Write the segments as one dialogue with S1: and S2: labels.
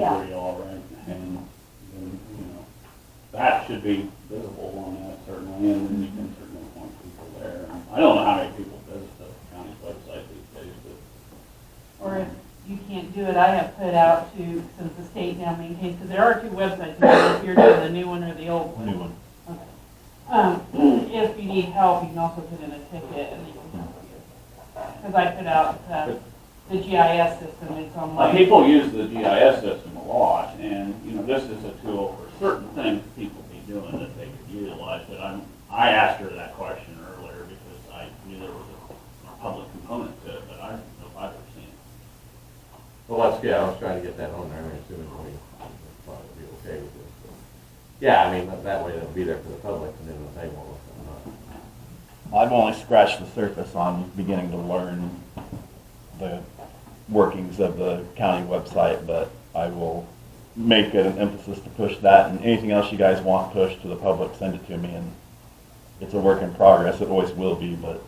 S1: where y'all rent, and, then, you know, that should be visible on that certainly, and then you can certainly point people there. I don't know how many people visit the county's website these days, but.
S2: Or if you can't do it, I have put out to, since the state now maintains, because there are two websites, I don't know if you're doing the new one or the old one.
S3: New one.
S2: Okay. Um, if you need help, you can also put in a ticket and they can help you. Because I put out, uh, the GIS system, it's
S1: Like,
S2: online.
S1: people use the GIS system a lot, and, you know, this is a tool for certain things people be doing that they could utilize, but I'm, I asked her that question earlier because I knew there was a, a public component to it, but I don't know if I've ever seen it.
S4: Well, that's good, I was trying to get that on there, I mean, assuming we, we'll probably be okay with this. but- Yeah, I mean, that that way it'll be there for the public, and then they'll say, well, it's not.
S3: I've only scratched the surface on beginning to learn the workings of the county website, but I will make it an emphasis to push that, and anything else you guys want pushed to the public, send it to me, and it's a work in progress, it always will be, but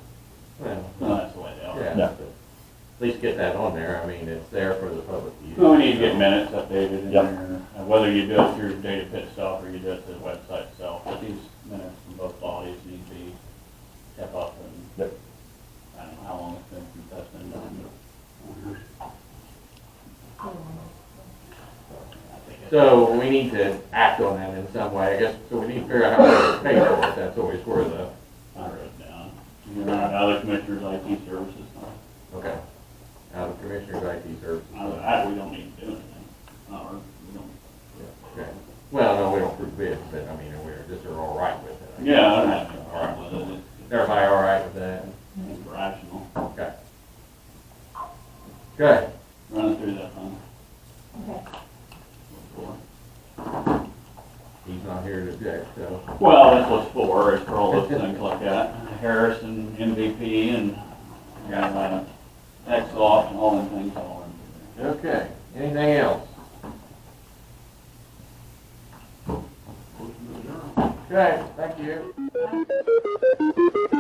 S1: No,
S4: Well,
S1: that's the way they
S4: yeah,
S1: are.
S3: Yeah.
S4: but at least get that on there, I mean, it's there for the public to use.
S1: Well, we need to get minutes updated in
S3: Yep.
S1: there, and whether you do it through data pit itself or you do it through the website itself, but these minutes from both bodies need to be kept up and,
S3: Yep.
S1: I don't know how long it's been since that's been done. but I think it's-
S4: So we need to act on that in some way, I guess, so we need to figure out how to pay for it, that's always where the,
S1: I
S3: Uh-huh.
S1: wrote it down. You're not other commissioners, IT services, no.
S4: okay. Out of Commissioners IT Services.
S1: I, I, we don't need to do anything, or, we don't.
S4: Yeah, okay. Well, no, we don't approve bids, but I mean, we're, just are all right with it. I guess.
S1: Yeah, I don't have any
S4: All right.
S1: problem with it, It's-
S4: Everybody all right with that?
S1: it's rational,
S4: Okay. Good.
S1: run through that, huh?
S5: Okay.
S1: Before.
S4: He's not here to object, so.
S1: Well, that's what's for, is for all those things like that. Harrison, MVP, and, uh, Exoff, and all them things all in there.
S4: Okay, anything else? Okay, thank you.